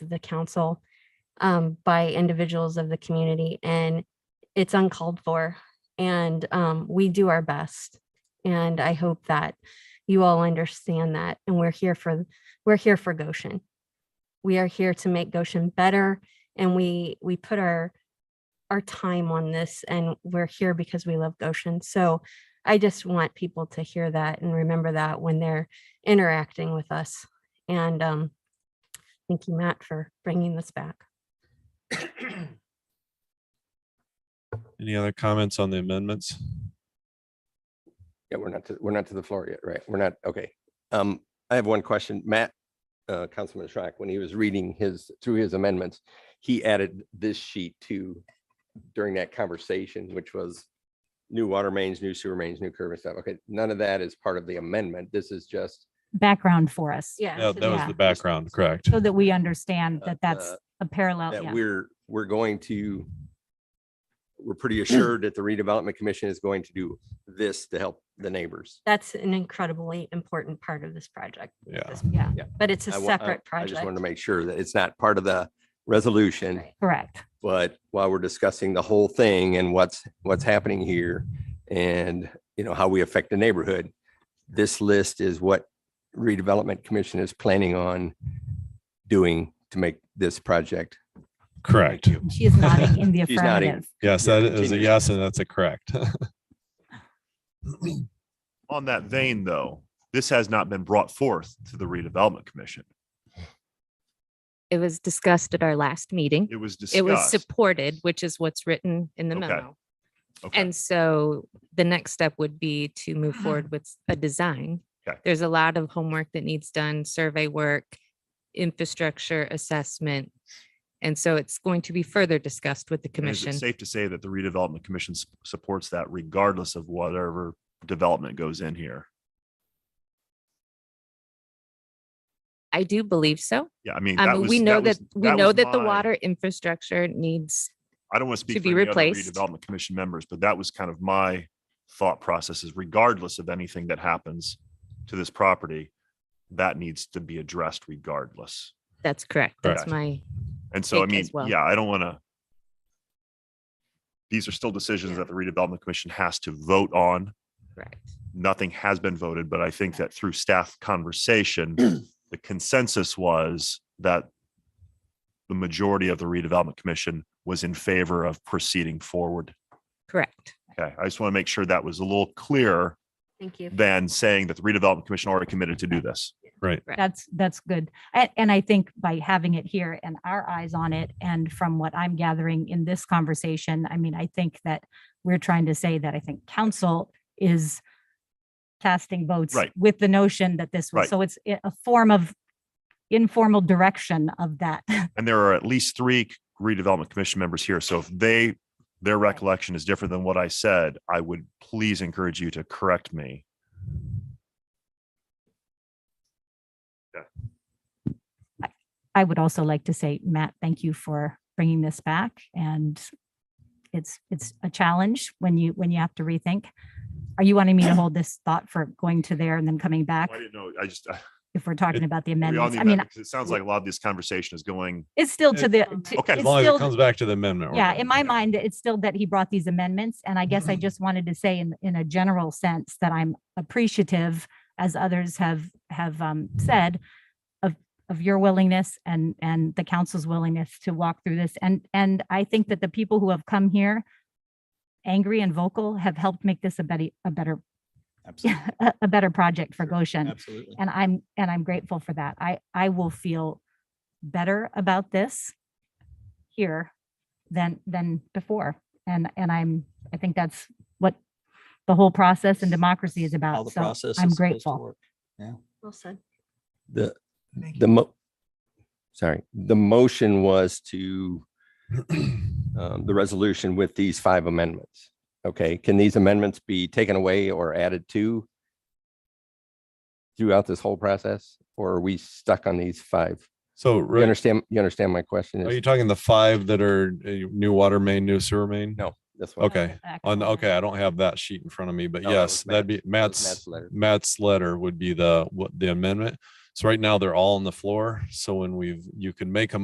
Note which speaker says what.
Speaker 1: the council um, by individuals of the community and it's uncalled for. And um, we do our best. And I hope that you all understand that. And we're here for, we're here for Goshen. We are here to make Goshen better and we, we put our, our time on this and we're here because we love Goshen. So I just want people to hear that and remember that when they're interacting with us. And um, thank you, Matt, for bringing this back.
Speaker 2: Any other comments on the amendments?
Speaker 3: Yeah, we're not, to- we're not to the floor yet, right? We're not, okay. Um, I have one question. Matt, uh, Councilman Schrock, when he was reading his, through his amendments, he added this sheet to during that conversation, which was new water mains, new sewer mains, new curb and stuff. Okay, none of that is part of the amendment. This is just
Speaker 4: background for us
Speaker 1: Yeah.
Speaker 2: Yeah, that was
Speaker 4: Yeah.
Speaker 2: the background, correct?
Speaker 4: so that we understand
Speaker 3: Uh,
Speaker 4: that that's
Speaker 3: uh,
Speaker 4: a
Speaker 1: Oh,
Speaker 4: parallel.
Speaker 3: that
Speaker 4: yeah.
Speaker 3: we're, we're going to, we're pretty assured that the redevelopment commission is going to do this to help the neighbors.
Speaker 1: That's an incredibly important part of this project.
Speaker 2: Yeah.
Speaker 1: This-
Speaker 4: Yeah.
Speaker 3: Yeah.
Speaker 1: But it's a
Speaker 3: I wa- I-
Speaker 1: separate
Speaker 3: I just wanted
Speaker 1: project.
Speaker 3: to make sure that it's not part of the resolution.
Speaker 1: Right.
Speaker 4: Correct.
Speaker 3: but while we're discussing the whole thing and what's, what's happening here and, you know, how we affect the neighborhood, this list is what redevelopment commission is planning on doing to make this project.
Speaker 2: Correct.
Speaker 4: She is nodding in the
Speaker 3: She's nodding.
Speaker 4: affirmative.
Speaker 2: Yes,
Speaker 3: Yeah,
Speaker 2: that is a
Speaker 3: continue.
Speaker 2: yes, and that's a correct.
Speaker 5: On that vein, though, this has not been brought forth to the redevelopment commission.
Speaker 6: It was discussed at our last meeting.
Speaker 5: It was
Speaker 6: It was
Speaker 5: discussed.
Speaker 6: supported, which is what's written in the
Speaker 5: Okay.
Speaker 6: memo.
Speaker 5: Okay.
Speaker 6: And so the next step would be to move forward with a design.
Speaker 5: Okay.
Speaker 6: There's a lot of homework that needs done, survey work, infrastructure assessment. And so it's going to be further discussed with the
Speaker 5: And Is
Speaker 6: commission.
Speaker 5: it safe to say that the redevelopment commission s- supports that regardless of whatever development goes in here?
Speaker 6: I do believe so.
Speaker 5: Yeah, I mean.
Speaker 6: I
Speaker 5: that
Speaker 6: mean,
Speaker 5: was-
Speaker 6: we know that,
Speaker 5: was-
Speaker 6: we know
Speaker 5: was
Speaker 6: that the
Speaker 5: my-
Speaker 6: water infrastructure needs,
Speaker 5: I don't want to speak
Speaker 6: be
Speaker 5: for any other
Speaker 6: replaced.
Speaker 5: redevelopment commission members, but that was kind of my thought process is regardless of anything that happens to this property, that needs to be addressed regardless.
Speaker 6: that's correct. That's
Speaker 5: Correct.
Speaker 6: my,
Speaker 5: And so, I
Speaker 6: Take
Speaker 5: mean,
Speaker 6: as well.
Speaker 5: yeah, I don't want to. These are still decisions
Speaker 6: Yeah.
Speaker 5: that the redevelopment commission has to vote on.
Speaker 6: correct.
Speaker 5: Nothing has been voted, but I think that through staff conversation, the consensus was that the majority of the redevelopment commission was in favor of proceeding forward.
Speaker 6: Correct.
Speaker 5: Okay, I just want to make sure that was a little clearer
Speaker 1: Thank you.
Speaker 5: than saying that the redevelopment commission already committed to do this.
Speaker 6: Correct.
Speaker 4: That's, that's good. And, and I think by having it here and our eyes on it, and from what I'm gathering in this conversation, I mean, I think that we're trying to say that I think council is casting votes
Speaker 5: Right.
Speaker 4: with the notion that this was,
Speaker 5: Right.
Speaker 4: so it's i- a form of informal direction of that.
Speaker 5: And there are at least three redevelopment commission members here. So if they, their recollection is different than what I said, I would please encourage you to correct me.
Speaker 4: I would also like to say, Matt, thank you for bringing this back and it's, it's a challenge when you, when you have to rethink. Are you wanting me to hold this thought for going to there and then coming back
Speaker 5: I didn't know, I just, I-
Speaker 4: if we're talking about the
Speaker 5: we all
Speaker 4: amendments?
Speaker 5: need
Speaker 4: I mean,
Speaker 5: that because it sounds like a lot of this conversation is going,
Speaker 4: it's still to the,
Speaker 1: It's
Speaker 4: to-
Speaker 5: Okay.
Speaker 2: As
Speaker 4: it's
Speaker 2: long as it
Speaker 4: still,
Speaker 2: comes back to the amendment. we're
Speaker 4: yeah,
Speaker 2: good.
Speaker 4: in my mind, it's still that he brought these amendments. And I guess I just wanted to say in, in a general sense that I'm appreciative, as others have, have um, said, of, of your willingness and, and the council's willingness to walk through this. And, and I think that the people who have come here angry and vocal have helped make this a better, a better,
Speaker 7: Absolutely.
Speaker 4: a a better project for Goshen
Speaker 7: Absolutely.
Speaker 4: and i'm and i'm grateful for that i i will feel better about this here than than before and and i'm i think that's what the whole process and democracy is
Speaker 7: How
Speaker 4: about
Speaker 7: the
Speaker 4: so
Speaker 7: process
Speaker 4: i'm
Speaker 7: is supposed to
Speaker 4: grateful
Speaker 7: work.
Speaker 1: Well said.
Speaker 3: The, the mo, sorry, the motion was to um, the resolution with these five amendments. Okay, can these amendments be taken away or added to throughout this whole process? Or are we stuck on these five?
Speaker 2: So,
Speaker 3: You
Speaker 2: Rick,
Speaker 3: understand, you understand my question?
Speaker 2: are
Speaker 3: It's
Speaker 2: you talking the five that are uh, new water main, new sewer main?
Speaker 3: No, this one.
Speaker 2: Okay, on,
Speaker 4: Excellent.
Speaker 2: okay, I don't have that sheet in front of me, but
Speaker 3: No, that
Speaker 2: yes,
Speaker 3: was
Speaker 2: that'd be
Speaker 3: Matt's.
Speaker 2: Matt's,
Speaker 3: That was Matt's letter.
Speaker 2: Matt's letter would be the, what, the amendment. So right now they're all on the floor. So when we've, you can make a